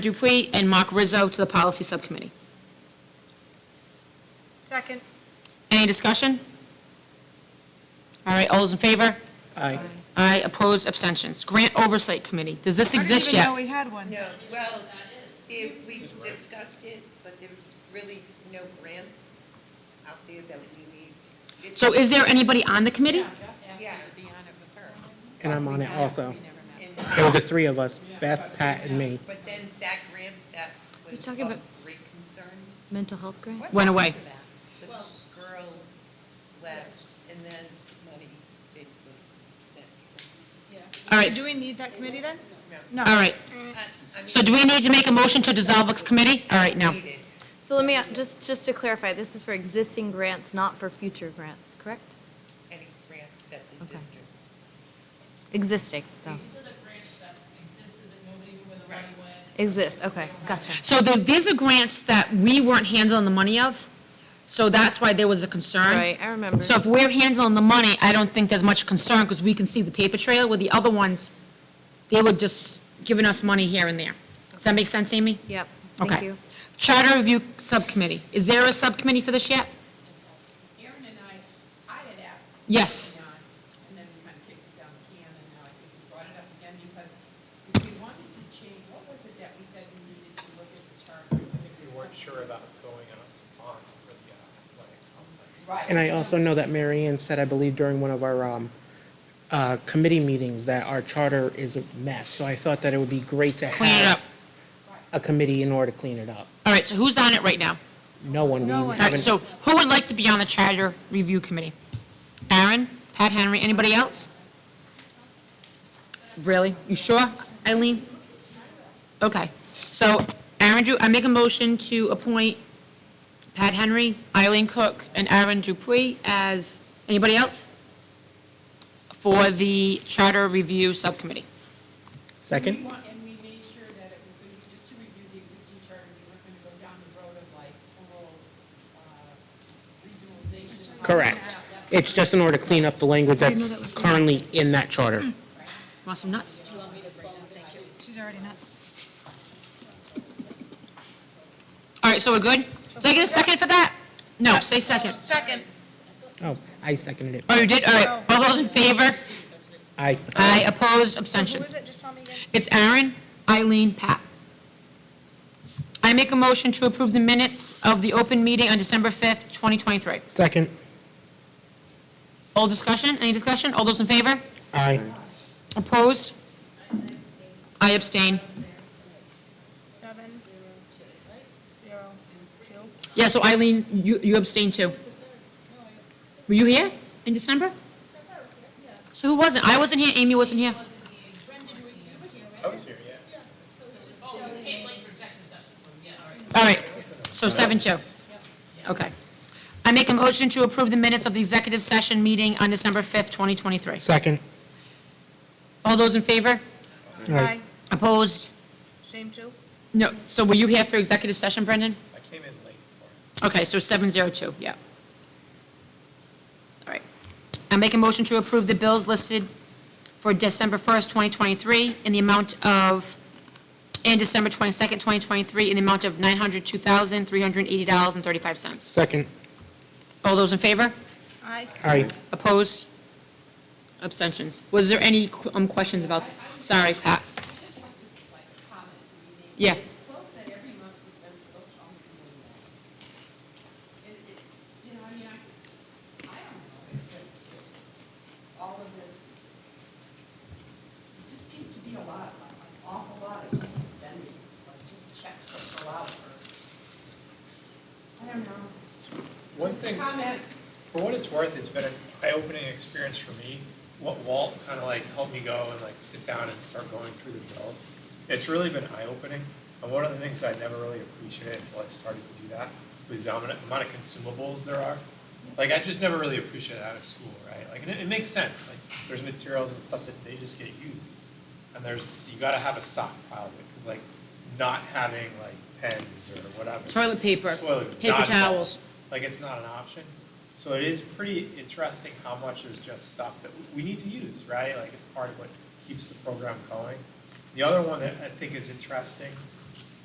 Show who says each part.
Speaker 1: Dupuy and Mark Rizzo to the Policy Subcommittee.
Speaker 2: Second.
Speaker 1: Any discussion? All right, all those in favor?
Speaker 3: Aye.
Speaker 1: Aye, opposed, abstentions. Grant Oversight Committee, does this exist
Speaker 2: I didn't
Speaker 1: yet?
Speaker 2: even know we had one.
Speaker 4: No, well, it, we discussed it, but there's really no grants out there that we need. It's-
Speaker 1: So is there anybody on the committee?
Speaker 4: Yeah,
Speaker 3: And I'm on it also.
Speaker 4: and,
Speaker 3: It was the three of us, Beth, Pat, and me.
Speaker 4: but then that grant that was of
Speaker 5: talking about-
Speaker 4: great concern.
Speaker 5: Mental health grant?
Speaker 4: what
Speaker 1: Went
Speaker 4: happened
Speaker 1: away.
Speaker 4: to that? The girl left and then money basically spent.
Speaker 1: All right,
Speaker 2: Do we need that committee then? No.
Speaker 1: all right.
Speaker 4: I- I mean,
Speaker 1: So do we need to make a motion to dissolve this committee? All right, now.
Speaker 4: it's needed.
Speaker 5: So let me, just, just to clarify, this is for existing grants, not for future grants, correct?
Speaker 4: Any grant that the
Speaker 5: Okay.
Speaker 4: district.
Speaker 5: Existing, though.
Speaker 6: These are the grants that existed that nobody knew where the money went.
Speaker 5: Exist, okay, gotcha.
Speaker 1: So the- these are grants that we weren't handling the money of, so that's why there was a concern.
Speaker 5: Right, I remember.
Speaker 1: So if we're handling the money, I don't think there's much concern, because we can see the paper trail, where the other ones, they were just giving us money here and there. Does that make sense, Amy?
Speaker 5: Yep, thank
Speaker 1: Okay.
Speaker 5: you.
Speaker 1: Charter Review Subcommittee, is there a subcommittee for this yet?
Speaker 6: Aaron and I, I had asked.
Speaker 1: Yes.
Speaker 6: early on, And then we kind of kicked it down the can, and now I think we brought it up again, because if we wanted to change, what was it that we said we needed to look at the charter?
Speaker 7: I think we weren't sure about going out to bond for the uh, athletic complex.
Speaker 6: Right.
Speaker 3: And I also know that Mary Ann said, I believe during one of our um, uh, committee meetings, that our charter is a mess. So I thought that it would be great to
Speaker 1: Clean it up.
Speaker 3: have a committee in order to clean it up.
Speaker 1: All right, so who's on it right now?
Speaker 3: No one, we
Speaker 2: No one.
Speaker 1: All right,
Speaker 3: haven't,
Speaker 1: so who would like to be on the Charter Review Committee? Aaron, Pat Henry, anybody else? Really? You sure, Eileen? Okay, so Aaron, Dru- I make a motion to appoint Pat Henry, Eileen Cook, and Aaron Dupuy as, anybody else? For the Charter Review Subcommittee.
Speaker 3: second?
Speaker 6: And we want- And we made sure that it was going to, just to review the existing charter, we weren't going to go down the road of like total uh, regionalization. and all that
Speaker 3: Correct.
Speaker 6: stuff. That's
Speaker 3: It's just in order to clean up the language that's currently in that charter.
Speaker 1: Mm. Want some nuts?
Speaker 2: She's already nuts.
Speaker 1: All right, so we're good? Did I get a second for that? No, say second.
Speaker 2: Second.
Speaker 3: Oh, I seconded
Speaker 1: Oh,
Speaker 3: it.
Speaker 1: you did? All right, all those in favor?
Speaker 3: I,
Speaker 1: Aye, opposed,
Speaker 2: Who was
Speaker 1: abstentions.
Speaker 2: it? Just tell me again.
Speaker 1: It's Aaron, Eileen, Pat. I make a motion to approve the minutes of the open meeting on December 5th, 2023.
Speaker 3: second,
Speaker 1: All discussion, any discussion? All those in favor?
Speaker 3: I,
Speaker 1: Opposed? I abstain.
Speaker 2: Seven. Zero, two.
Speaker 1: Yeah, so Eileen, you you abstain too. Were you here in December? So who wasn't? I wasn't here, Amy wasn't here.
Speaker 7: I was here, yeah.
Speaker 1: All right, so seven two. Okay. I make a motion to approve the minutes of the executive session meeting on December 5th, 2023.
Speaker 3: second.
Speaker 1: All those in favor?
Speaker 3: Aye.
Speaker 2: Aye.
Speaker 1: Opposed?
Speaker 2: Same two?
Speaker 1: No, so were you here for executive session, Brendan?
Speaker 7: I came in late for it.
Speaker 1: Okay, so 702, yeah. All right. I make a motion to approve the bills listed for December 1st, 2023, in the amount of, and December 22nd, 2023, in the amount of $902,380.35.
Speaker 3: Second,
Speaker 1: All those in favor?
Speaker 2: Aye.
Speaker 3: I,
Speaker 1: Opposed? Abstentions? Was there any qu- um, questions about, sorry, Pat?
Speaker 6: I just want to like comment to be made.
Speaker 1: Yeah.
Speaker 6: It's close that every month we spend close to almost a million dollars. It, it, you know, I mean, I, I don't know, if, if, if all of this, it just seems to be a lot, like an awful lot of just spending, like just checks that go out for, I don't know.
Speaker 7: One
Speaker 6: Just a
Speaker 7: thing,
Speaker 6: Comment,
Speaker 7: for what it's worth, it's been an eye-opening experience for me. What Walt kind of like helped me go and like sit down and start going through the bills. It's really been eye-opening. And one of the things I never really appreciated until I started to do that was the amount amount of consumables there are. Like, I just never really appreciated that at school, right? Like, and it, it makes sense. Like, there's materials and stuff that they just get used. And there's, you gotta have a stockpile of it, because like, not having like pens or whatever.
Speaker 1: Toilet paper,
Speaker 7: Toilet,
Speaker 1: paper
Speaker 7: dodgeball.
Speaker 1: towels.
Speaker 7: Like, it's not an option. So it is pretty interesting how much is just stuff that we- we need to use, right? Like, it's part of what keeps the program going. The other one that I think is interesting